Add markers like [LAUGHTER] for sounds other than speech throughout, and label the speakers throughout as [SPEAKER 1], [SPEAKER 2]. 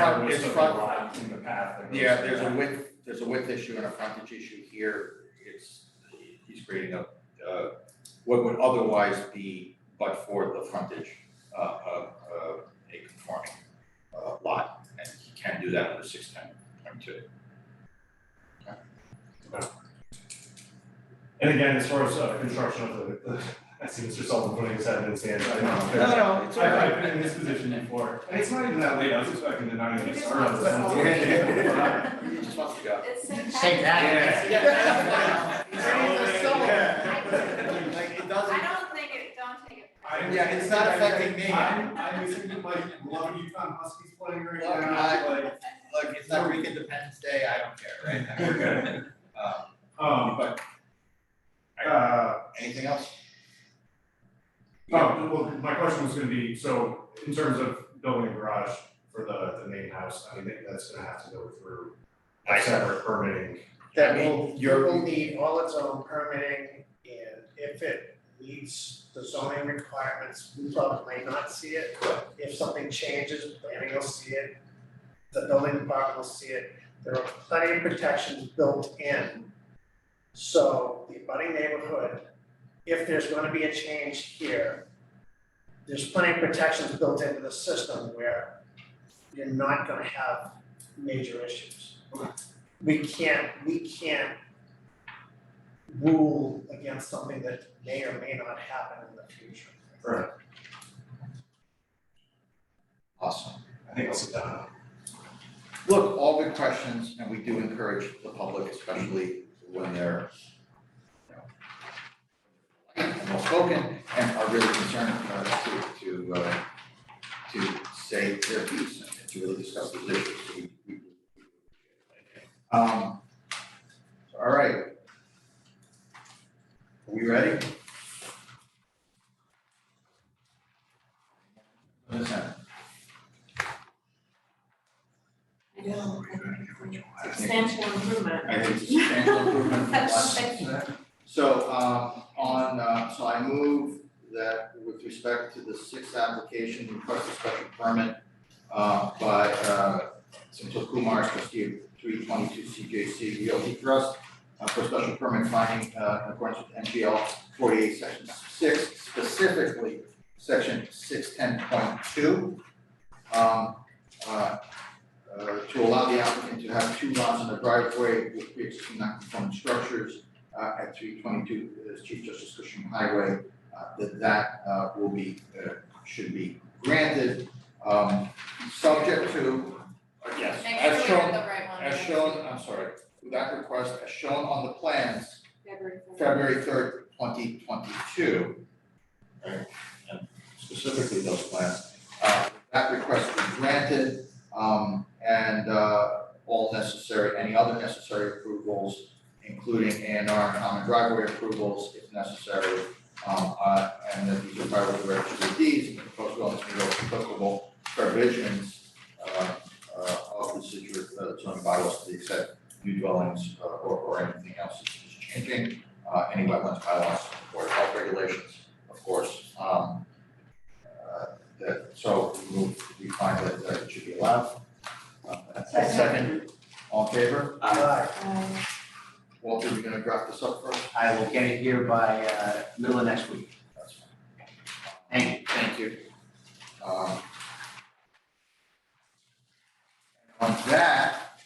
[SPEAKER 1] There was
[SPEAKER 2] it's
[SPEAKER 1] some
[SPEAKER 2] front-
[SPEAKER 1] rock in the path that goes
[SPEAKER 2] Yeah,
[SPEAKER 1] to
[SPEAKER 2] there's a
[SPEAKER 1] that.
[SPEAKER 2] width, there's a width issue and a frontage issue here, it's, he's creating a, uh, what would otherwise be, but for the frontage, uh, of, uh, a conforming, uh, lot, and he can do that under six ten point two.
[SPEAKER 1] And again, as far as uh, construction of the, I see Mr. Sullivan putting his head in the sand, I know. there's-
[SPEAKER 2] no, it's
[SPEAKER 1] I- I've been in this position before, and it's not even that late, I was expecting to not even start on this. one.
[SPEAKER 2] [LAUGHS] He just wants to go.
[SPEAKER 3] It's St.
[SPEAKER 4] Say that.
[SPEAKER 3] Patrick's.
[SPEAKER 2] Yeah.
[SPEAKER 1] He's ready for the summer.
[SPEAKER 3] Yeah.
[SPEAKER 2] Like, it
[SPEAKER 3] I
[SPEAKER 2] doesn't,
[SPEAKER 3] don't think it, don't take it.
[SPEAKER 1] I-
[SPEAKER 2] Yeah, it's not affecting me.
[SPEAKER 1] I'm, I'm listening to like, love Yukon Huskies playing right
[SPEAKER 2] Look,
[SPEAKER 1] now,
[SPEAKER 2] I-
[SPEAKER 1] like.
[SPEAKER 2] look, it's not week Independence Day, I don't care, [LAUGHS] right?
[SPEAKER 1] Okay.
[SPEAKER 2] Um,
[SPEAKER 1] Um, but. Uh,
[SPEAKER 2] anything else?
[SPEAKER 1] Oh, well, my question was gonna be, so in terms of building a garage for the, the main house, I mean, that's gonna have to go through a separate permitting.
[SPEAKER 5] That
[SPEAKER 2] I mean,
[SPEAKER 5] will, it
[SPEAKER 2] you're-
[SPEAKER 5] will need all its own permitting, and if it meets the zoning requirements, we probably may not see it. If something changes, planning will see it, the building department will see it, there are plenty of protections built in. So the abutting neighborhood, if there's gonna be a change here, there's plenty of protections built into the system where you're not gonna have major issues we can't, we can't rule against something that may or may not happen in the future.
[SPEAKER 1] Right.
[SPEAKER 2] Awesome.
[SPEAKER 1] I think I'll sit down.
[SPEAKER 2] Look, all good questions, and we do encourage the public, especially when they're, you know, and well spoken and are really concerned uh, to, to, uh, to say their piece and to really discuss these issues. So we- we- Um, all right. Are we ready? Listen,
[SPEAKER 6] I know. Substantial improvement.
[SPEAKER 2] I think it's a substantial improvement from last
[SPEAKER 6] [LAUGHS] Thank you.
[SPEAKER 2] So, uh, on, uh, so I move that with respect to the sixth application, request a special permit, uh, by, uh, Santil Kumar, trustee of three twenty-two CJC Realty Trust, uh, for special permit finding, uh, in accordance with NGL forty-eight, section six, specifically section six ten point two. Um, uh, uh, to allow the applicant to have two lots in the driveway with pre-existing non-conforming structures uh, at three twenty-two, uh, Chief Justice Cushing Highway, uh, that that, uh, will be, uh, should be granted, um, subject to, uh, yes,
[SPEAKER 3] Make
[SPEAKER 2] as
[SPEAKER 3] sure we have
[SPEAKER 2] shown,
[SPEAKER 3] the right one.
[SPEAKER 2] as shown, I'm sorry, that request, as shown on the plans,
[SPEAKER 6] February fourth.
[SPEAKER 2] February third, twenty twenty-two. Right, and specifically those plans, uh, that request be granted, um, and, uh, all necessary, any other necessary approvals including A and R and common driveway approvals if necessary. Um, uh, and that these are prior to registry of deeds and the proposed wellness may go applicable provisions, uh, uh, of the Situate uh, zoning bylaws to the extent new dwellings, uh, or, or anything else is is changing, uh, any wetlands bylaws or health regulations, of course, um, uh, that, so we move, we find that, that it should be allowed. Uh, second, all in favor?
[SPEAKER 5] Aye.
[SPEAKER 6] Um,
[SPEAKER 2] Walter, you're gonna draft this up first?
[SPEAKER 4] I will get it here by uh middle of next week.
[SPEAKER 2] That's fine.
[SPEAKER 4] Thank you.
[SPEAKER 2] Thank you. Um, On that,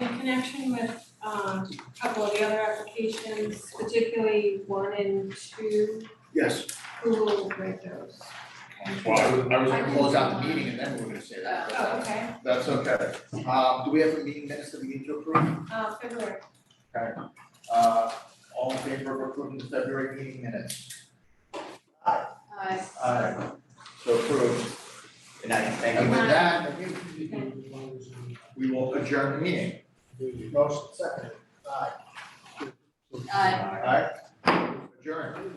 [SPEAKER 6] In connection with um a couple of the other applications, particularly one and two,
[SPEAKER 2] yes,
[SPEAKER 6] who will break those?
[SPEAKER 2] well, I was, I was gonna close out the meeting and then we were gonna say that, but
[SPEAKER 6] Oh,
[SPEAKER 2] that's,
[SPEAKER 6] okay,
[SPEAKER 2] that's okay. Um, do we have a meeting minutes that we need to approve?
[SPEAKER 6] uh February,
[SPEAKER 2] Okay. Uh, all in favor of approving the February meeting minutes?
[SPEAKER 3] Uh,
[SPEAKER 2] Aye. So approved.
[SPEAKER 4] Good night, thank
[SPEAKER 2] And
[SPEAKER 4] you.
[SPEAKER 2] with that, we will adjourn the meeting.
[SPEAKER 5] Motion second. Aye.
[SPEAKER 3] uh,
[SPEAKER 2] All right? Adjourn.